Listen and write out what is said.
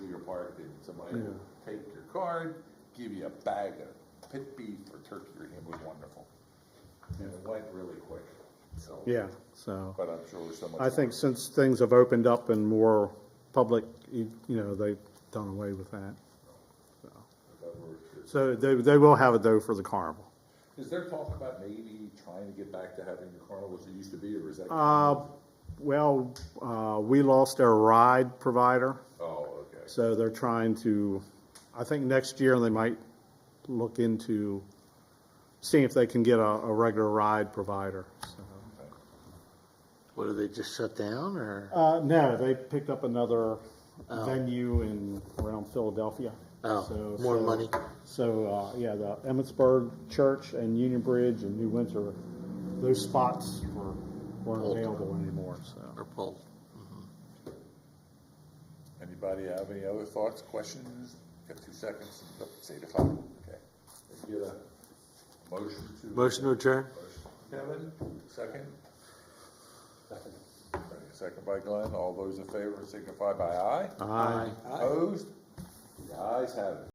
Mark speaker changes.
Speaker 1: card, and somebody will take your card, give you a bag of pit beef or turkey, or it was wonderful,
Speaker 2: And it went really quick.
Speaker 1: so.
Speaker 3: Yeah, so,
Speaker 1: But I'm sure so much.
Speaker 3: I think since things have opened up and more public, you you know, they've done away with that.
Speaker 1: more that we're-
Speaker 3: So they, they will have it though for the carnival.
Speaker 1: Is there talk about maybe trying to get back to having the carnival as it used to be, or is that?
Speaker 3: Uh, well, uh, we lost our ride provider,
Speaker 1: Oh, okay.
Speaker 3: so they're trying to, I think next year they might look into seeing if they can get a, a regular ride provider, so.
Speaker 4: What, do they just shut down or?
Speaker 3: Uh, no, they picked up another venue in around Philadelphia.
Speaker 4: Oh, more money.
Speaker 3: So uh, yeah, the Emmitsburg Church and Union Bridge and New Windsor, those spots were weren't
Speaker 4: Full.
Speaker 3: available anymore. So
Speaker 4: Or pulled?
Speaker 1: Anybody have any other thoughts, questions? Got two seconds, say the clock, okay. Let's Get a motion to.
Speaker 4: Motion to adjourn?
Speaker 1: Kevin, second? Second by Glenn, all those in favor signify by aye.
Speaker 3: I.
Speaker 1: Opposed? The ayes have it.